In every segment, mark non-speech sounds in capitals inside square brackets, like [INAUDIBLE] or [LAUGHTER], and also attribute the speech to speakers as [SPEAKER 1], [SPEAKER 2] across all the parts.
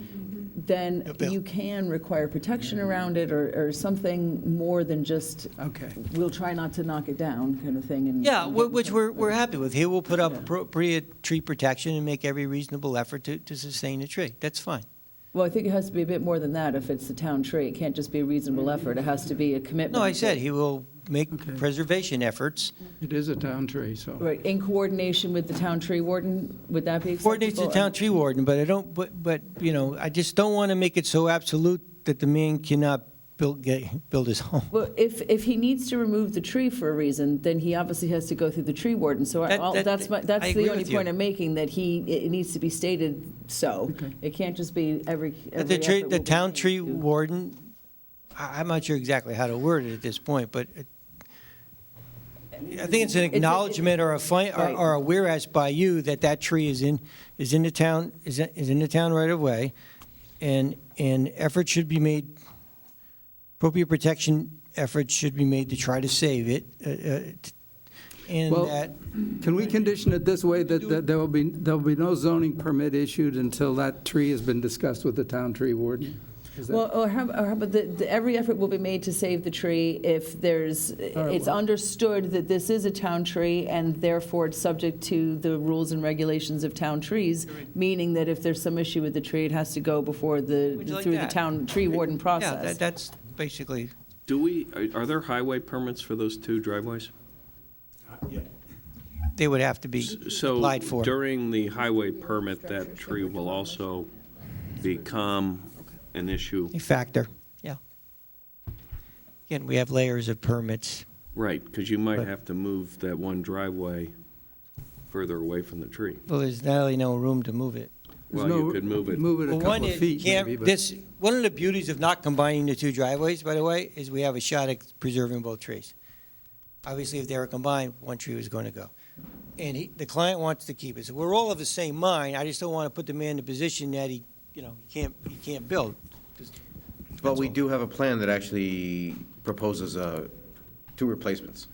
[SPEAKER 1] then
[SPEAKER 2] Yep, yep.
[SPEAKER 1] you can require protection around it or, or something more than just,
[SPEAKER 2] Okay.
[SPEAKER 1] we'll try not to knock it down kind of thing. and-
[SPEAKER 3] Yeah,
[SPEAKER 1] and
[SPEAKER 3] whi-
[SPEAKER 1] get-
[SPEAKER 3] which we're, we're happy with. Here, we'll put up appropriate tree protection and make every reasonable effort to, to sustain a tree. That's fine.
[SPEAKER 1] Well, I think it has to be a bit more than that if it's the town tree. It can't just be a reasonable effort. It has to be a commitment.
[SPEAKER 3] No, I said he will make
[SPEAKER 2] Okay.
[SPEAKER 3] preservation efforts,
[SPEAKER 2] It is a town tree, so.
[SPEAKER 1] Right, in coordination with the town tree warden, would that be acceptable?
[SPEAKER 3] coordinate to the town tree warden, but I don't, but, but, you know, I just don't want to make it so absolute that the man cannot build, get, build his [LAUGHS] home.
[SPEAKER 1] Well, if, if he needs to remove the tree for a reason, then he obviously has to go through the tree warden. So I-
[SPEAKER 3] That-
[SPEAKER 1] I'll-
[SPEAKER 3] that-
[SPEAKER 1] that's my,
[SPEAKER 3] I
[SPEAKER 1] that's
[SPEAKER 3] agree
[SPEAKER 1] the only
[SPEAKER 3] with you.
[SPEAKER 1] point I'm making, that he, it needs to be stated so.
[SPEAKER 2] Okay.
[SPEAKER 1] It can't just be every,
[SPEAKER 3] That
[SPEAKER 1] every
[SPEAKER 3] The tree,
[SPEAKER 1] effort
[SPEAKER 3] the
[SPEAKER 1] will be
[SPEAKER 3] town
[SPEAKER 1] made
[SPEAKER 3] tree
[SPEAKER 1] to-
[SPEAKER 3] warden, I, I'm not sure exactly how to word it at this point, but it- I think it's an acknowledgement or a fi, or-
[SPEAKER 1] Right.
[SPEAKER 3] or a whereas by you that that tree is in, is in the town, is, in- is in the town right of way, and, and effort should be made, appropriate protection efforts should be made to try to save it, uh, uh, t- and
[SPEAKER 2] Well,
[SPEAKER 3] that,
[SPEAKER 2] Can we condition it this way, that that there will be, there will be no zoning permit issued until that tree has been discussed with the town tree warden? Is that-
[SPEAKER 1] Well, or how, or how about the, the, every effort will be made to save the tree if there's,
[SPEAKER 2] right,
[SPEAKER 1] it's
[SPEAKER 2] well-
[SPEAKER 1] understood that this is a town tree and therefore it's subject to the rules and regulations of town trees, meaning that if there's some issue with the tree, it has to go before the,
[SPEAKER 3] Would you like
[SPEAKER 1] through the
[SPEAKER 3] that?
[SPEAKER 1] town tree warden
[SPEAKER 3] yeah, that-
[SPEAKER 1] process.
[SPEAKER 3] that's basically,
[SPEAKER 4] Do we, are- are there highway permits for those two driveways?
[SPEAKER 3] they would have to be applied
[SPEAKER 4] So
[SPEAKER 3] for.
[SPEAKER 4] during the highway permit, that tree will also become an issue?
[SPEAKER 3] A factor, yeah. Again, we have layers of permits.
[SPEAKER 4] Right, because you might have to move that one driveway further away from the tree.
[SPEAKER 3] Well, there's not really no room to move it.
[SPEAKER 2] There's
[SPEAKER 4] Well, you
[SPEAKER 2] no-
[SPEAKER 4] could move it.
[SPEAKER 2] Move it a
[SPEAKER 3] Well,
[SPEAKER 2] couple
[SPEAKER 3] one
[SPEAKER 2] of
[SPEAKER 3] is-
[SPEAKER 2] feet,
[SPEAKER 3] can't-
[SPEAKER 2] maybe, but-
[SPEAKER 3] this- one of the beauties of not combining the two driveways, by the way, is we have a shot at preserving both trees. Obviously, if they were combined, one tree was going to go. And he, the client wants to keep it. So we're all of the same mind. I just don't want to put the man in a position that he, you know, he can't, he can't build.
[SPEAKER 5] But we do have a plan that actually proposes uh, two replacements.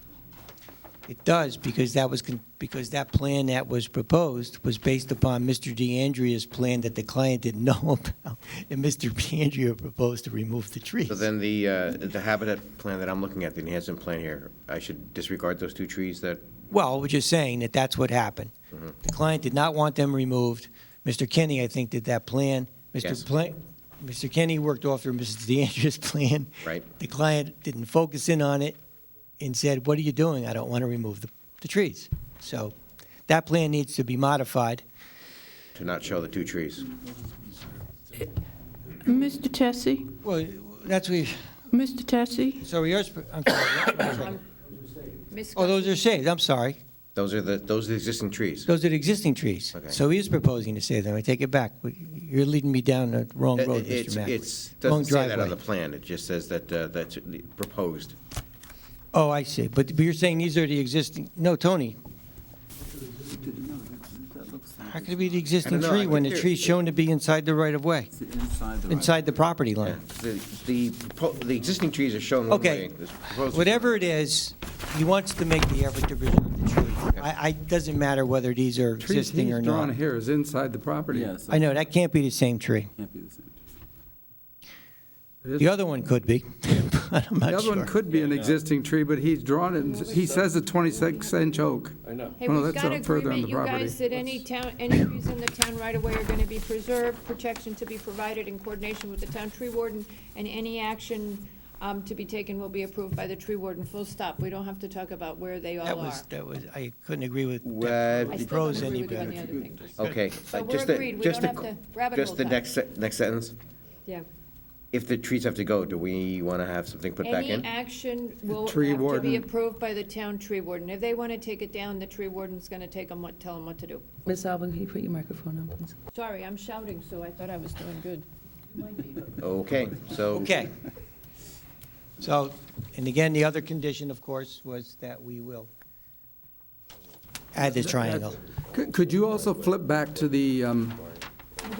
[SPEAKER 3] It does, because that was, con- because that plan that was proposed was based upon Mr. DeAndrea's plan that the client didn't know [LAUGHS] about, and Mr. DeAndrea proposed to remove the trees.
[SPEAKER 5] So then the, uh, the habitat plan that I'm looking at, the enhancement plan here, I should disregard those two trees that,
[SPEAKER 3] Well, we're just saying that that's what happened.
[SPEAKER 5] Mm-hmm.
[SPEAKER 3] The client did not want them removed. Mr. Kenny, I think, did that plan.
[SPEAKER 5] Yes.
[SPEAKER 3] Mr. Pla- Mr. Kenny worked off of Mrs. DeAndrea's [LAUGHS] plan.
[SPEAKER 5] Right.
[SPEAKER 3] The client didn't focus in on it and said, what are you doing? I don't want to remove the, the trees. So that plan needs to be modified.
[SPEAKER 5] to not show the two trees.
[SPEAKER 6] Mr. Tessie,
[SPEAKER 3] Well, that's what,
[SPEAKER 6] Mr. Tessie,
[SPEAKER 3] so yours, I'm sorry. [COUGHS] Oh, those are saved, I'm sorry.
[SPEAKER 5] Those are the, those are the existing trees.
[SPEAKER 3] Those are the existing trees.
[SPEAKER 5] Okay.
[SPEAKER 3] So he is proposing to save them. I take it back. We- You're leading me down the wrong road, Mr.
[SPEAKER 5] Uh, It's-
[SPEAKER 3] Mack.
[SPEAKER 5] It's,
[SPEAKER 3] Wrong
[SPEAKER 5] doesn't say that on
[SPEAKER 3] driveway.
[SPEAKER 5] the plan, it just says that, uh, that's proposed.
[SPEAKER 3] Oh, I see. But but you're saying these are the existing, no, Tony. How could it be the existing
[SPEAKER 5] know. I
[SPEAKER 3] tree when the
[SPEAKER 5] think
[SPEAKER 3] tree's
[SPEAKER 5] they're-
[SPEAKER 3] shown to be inside the right-of-way, inside the property
[SPEAKER 5] Yeah.
[SPEAKER 3] line?
[SPEAKER 5] The, the propo- the existing trees are shown one way.
[SPEAKER 3] Okay.
[SPEAKER 5] This proposed-
[SPEAKER 3] Whatever it is, he wants to make the effort to preserve the tree. I, I, doesn't matter whether these are
[SPEAKER 2] Tree
[SPEAKER 3] existing
[SPEAKER 2] he's
[SPEAKER 3] or
[SPEAKER 2] drawn
[SPEAKER 3] not.
[SPEAKER 2] here is inside the property.
[SPEAKER 7] Yes,
[SPEAKER 3] I know, that can't be the same tree.
[SPEAKER 7] can't be the same.
[SPEAKER 2] It is-
[SPEAKER 3] The other one could be, [LAUGHS] but I'm
[SPEAKER 2] The
[SPEAKER 3] not
[SPEAKER 2] other one
[SPEAKER 3] sure.
[SPEAKER 2] could be an existing tree, but he's drawn it, and he says a 26-inch oak.
[SPEAKER 4] I know.
[SPEAKER 8] Hey,
[SPEAKER 2] Well,
[SPEAKER 8] we've
[SPEAKER 2] that's
[SPEAKER 8] got
[SPEAKER 2] not further on
[SPEAKER 8] agreement,
[SPEAKER 2] the
[SPEAKER 8] you
[SPEAKER 2] property.
[SPEAKER 8] guys, that any town, any trees in the town right away are going to be preserved, protection to be provided in coordination with the town tree warden, and any action um, to be taken will be approved by the tree warden, full stop. We don't have to talk about where they
[SPEAKER 3] That
[SPEAKER 8] all are.
[SPEAKER 3] was, that was, I couldn't agree with
[SPEAKER 5] Well,
[SPEAKER 8] I
[SPEAKER 3] that
[SPEAKER 8] still don't
[SPEAKER 3] prose
[SPEAKER 8] agree
[SPEAKER 3] any
[SPEAKER 8] with you on
[SPEAKER 3] better.
[SPEAKER 8] the other thing.
[SPEAKER 5] Okay.
[SPEAKER 8] So
[SPEAKER 5] uh,
[SPEAKER 8] we're
[SPEAKER 5] just the-
[SPEAKER 8] agreed. We
[SPEAKER 5] just
[SPEAKER 8] don't
[SPEAKER 5] the-
[SPEAKER 8] have to rabbit
[SPEAKER 5] Just the
[SPEAKER 8] hole
[SPEAKER 5] next, se- next sentence,
[SPEAKER 8] Yeah.
[SPEAKER 5] if the trees have to go, do we want to have something put back in?
[SPEAKER 8] Any action will have
[SPEAKER 2] tree
[SPEAKER 8] to
[SPEAKER 2] warden.
[SPEAKER 8] be approved by the town tree warden. If they want to take it down, the tree warden's going to take them, what, tell them what to do.
[SPEAKER 1] Ms. Albin, can you put your microphone on, please?
[SPEAKER 8] Sorry, I'm shouting, so I thought I was doing good.
[SPEAKER 5] Okay, so.
[SPEAKER 3] Okay. So, and again, the other condition, of course, was that we will add this triangle.
[SPEAKER 2] Could could you also flip back to the, um,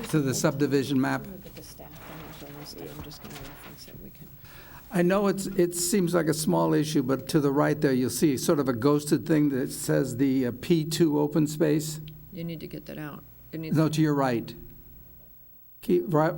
[SPEAKER 2] to the subdivision map?
[SPEAKER 8] Look at the staff, I'm not sure, I'm just going to reference it, we can.
[SPEAKER 2] I know it's, it seems like a small issue, but to the right there, you'll see sort of a ghosted thing that says the uh, P2 open space.
[SPEAKER 8] You need to get that out. It needs to
[SPEAKER 2] No, to your right. Keep, right,